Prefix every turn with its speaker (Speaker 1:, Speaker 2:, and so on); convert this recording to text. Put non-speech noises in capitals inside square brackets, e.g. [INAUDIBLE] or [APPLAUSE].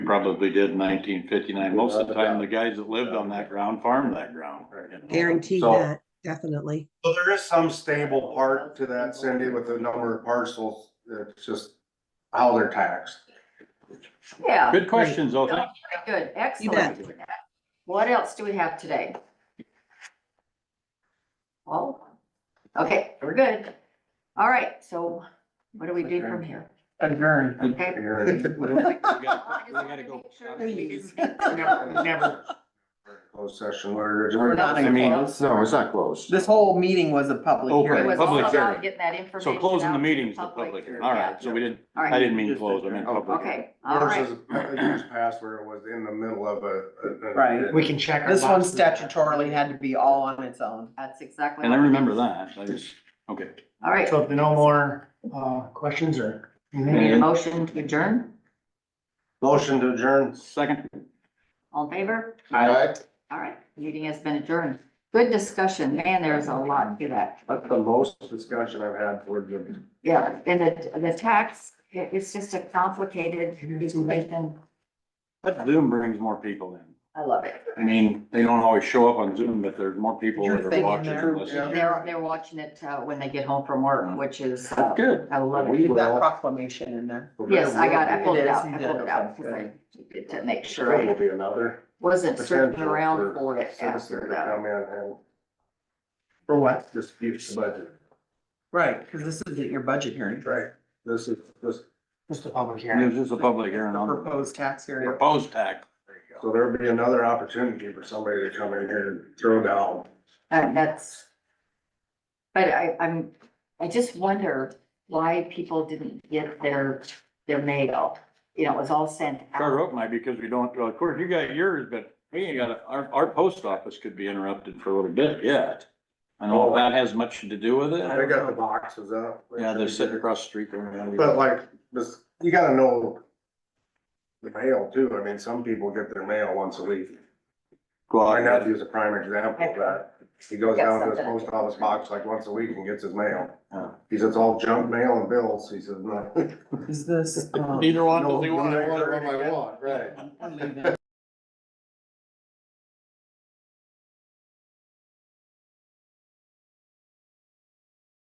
Speaker 1: probably did in nineteen fifty-nine. Most of the time, the guys that lived on that ground farmed that ground. you know.
Speaker 2: guaranteed
Speaker 1: So-
Speaker 2: that, definitely.
Speaker 3: So there is some stable part to that, Cindy, with the number of parcels, it's just how they're taxed.
Speaker 4: Yeah,
Speaker 1: Good questions, though. Thank
Speaker 4: good,
Speaker 2: You bet.
Speaker 4: excellent.
Speaker 1: you.
Speaker 4: What else do we have today? Oh, okay, we're good. All right, so what do we do from here?
Speaker 1: [LAUGHS]
Speaker 5: Adjourn.
Speaker 4: Okay.
Speaker 1: We gotta- we gotta go.
Speaker 3: [LAUGHS] Never, never. Closed session, we're
Speaker 5: We're
Speaker 3: adjourned.
Speaker 5: not
Speaker 1: I
Speaker 5: in
Speaker 1: mean,
Speaker 5: closed.
Speaker 3: No, it's not closed.
Speaker 5: This whole meeting was a public
Speaker 1: Open.
Speaker 4: It
Speaker 5: hearing.
Speaker 4: was
Speaker 1: Public
Speaker 4: all about
Speaker 1: hearing.
Speaker 4: getting that information.
Speaker 1: So closing
Speaker 4: out
Speaker 1: the
Speaker 4: to
Speaker 1: meeting is the public hearing. All right, so we didn't,
Speaker 4: All
Speaker 1: I
Speaker 4: right,
Speaker 1: didn't mean close, I meant public. hearing.
Speaker 4: okay, all
Speaker 3: Ours
Speaker 4: right,
Speaker 3: is, it was passed where it was in the middle of a- a. a-
Speaker 5: Right.
Speaker 6: We can check. our
Speaker 5: This one
Speaker 6: boxes.
Speaker 5: statutorily had to be all on its own.
Speaker 4: that's exactly.
Speaker 1: And I
Speaker 4: what-
Speaker 1: remember that. I just, okay.
Speaker 4: All right,
Speaker 6: So if there are no more, uh, questions or anything,
Speaker 4: need a motion to adjourn,
Speaker 3: Motion to adjourn.
Speaker 1: Second.
Speaker 4: all in favor?
Speaker 3: Aye.
Speaker 4: All right, meeting has been adjourned. Good discussion, man, there's a lot to that.
Speaker 3: That's the most discussion I've had for the.
Speaker 4: Yeah, and the, the tax, it- it's just a complicated equation.
Speaker 1: But Zoom brings more people in.
Speaker 4: I love it.
Speaker 1: I mean, they don't always show up on Zoom, but there's more people
Speaker 5: You're
Speaker 1: that are
Speaker 5: thinking
Speaker 1: watching
Speaker 5: there,
Speaker 1: and listening.
Speaker 4: They're, they're watching it, uh, when they get home from work, which is, uh,
Speaker 1: Good.
Speaker 4: I love
Speaker 5: We
Speaker 4: it.
Speaker 5: did that proclamation in there.
Speaker 4: Yes, I got, I pulled it out, I
Speaker 5: You did,
Speaker 4: pulled it out,
Speaker 5: okay,
Speaker 4: 'cause I needed to make sure
Speaker 3: There will
Speaker 4: I
Speaker 3: be another.
Speaker 4: wasn't searching
Speaker 3: potential
Speaker 4: around for it
Speaker 3: citizens
Speaker 4: after
Speaker 3: to
Speaker 4: that.
Speaker 3: Come in and
Speaker 6: for what?
Speaker 3: dispute the budget.
Speaker 5: Right, because this is at your budget hearing.
Speaker 3: Right. This is, this,
Speaker 6: Just a public hearing.
Speaker 1: It was just a public hearing
Speaker 5: The
Speaker 1: on
Speaker 5: Proposed tax area.
Speaker 1: proposed tax.
Speaker 3: so there'll be another opportunity for somebody to come in here and throw down.
Speaker 4: And uh, that's, but I, I'm, I just wonder why people didn't get their, their mail. You know, it was all sent
Speaker 1: Charter
Speaker 4: out.
Speaker 1: Oak might because we don't, well, of course, you got yours, but we ain't got, a- our, our post office could be interrupted for a little bit yet. I don't know if that has much to do with it.
Speaker 3: They Oh. got the boxes up.
Speaker 1: Yeah, they're sitting across the street there.
Speaker 3: But like, this, you gotta know the mail too. I mean, some people get their mail once a week.
Speaker 1: Well,
Speaker 3: My
Speaker 1: I got-
Speaker 3: nephew's a prime example of that. He goes down to his post office box like once a week and gets his mail.
Speaker 1: Yeah.
Speaker 3: He says, all junk mail and bills. He says, no.
Speaker 5: Is this?
Speaker 1: [LAUGHS]
Speaker 5: um,
Speaker 1: Neither one
Speaker 3: No,
Speaker 1: does he
Speaker 3: no,
Speaker 1: want.
Speaker 3: neither one I want, right.
Speaker 5: I'm leaving.